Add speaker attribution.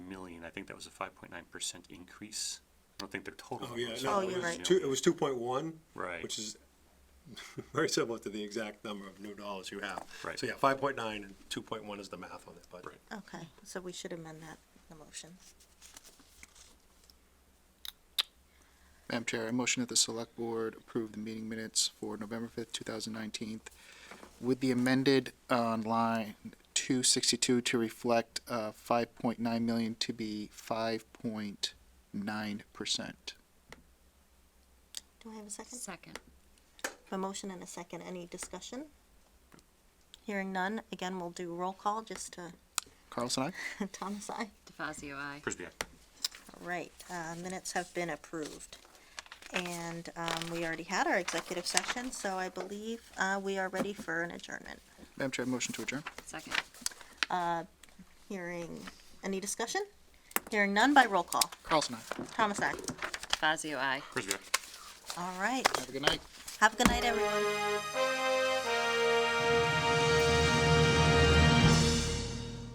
Speaker 1: think that was a five point nine percent increase. I don't think their total.
Speaker 2: Oh, yeah,
Speaker 1: was-
Speaker 2: no,
Speaker 1: was,
Speaker 2: it
Speaker 1: you
Speaker 2: was
Speaker 1: know,
Speaker 2: two, it was two point one,
Speaker 1: Right.
Speaker 2: which is very similar to the exact number of new dollars you have.
Speaker 1: Right.
Speaker 2: So yeah, five point nine and two point one is the math on it, but.
Speaker 1: Right.
Speaker 3: Okay, so we should amend that, the motion.
Speaker 4: Madam Chair, I motion that the Select Board approve the meeting minutes for November 5th, 2019, with the amended on line 262 to reflect uh, 5.9 million to be 5.9%.
Speaker 3: Do I have a second?
Speaker 5: Second.
Speaker 3: A motion and a second, any discussion? Hearing none, again, we'll do roll call, just to,
Speaker 4: Carlson, aye?
Speaker 3: Thomas, aye.
Speaker 5: DeFazio, I.
Speaker 1: Frisbee, aye.
Speaker 3: All right, uh, minutes have been approved. And, um, we already had our executive session, so I believe, uh, we are ready for an adjournment.
Speaker 4: Madam Chair, I motion to adjourn.
Speaker 5: Second.
Speaker 3: Hearing, any discussion? Hearing none by roll call.
Speaker 4: Carlson, aye.
Speaker 3: Thomas, aye.
Speaker 5: DeFazio, I.
Speaker 1: Frisbee, aye.
Speaker 3: All right,
Speaker 4: Have a good night.
Speaker 3: have a good night, everyone.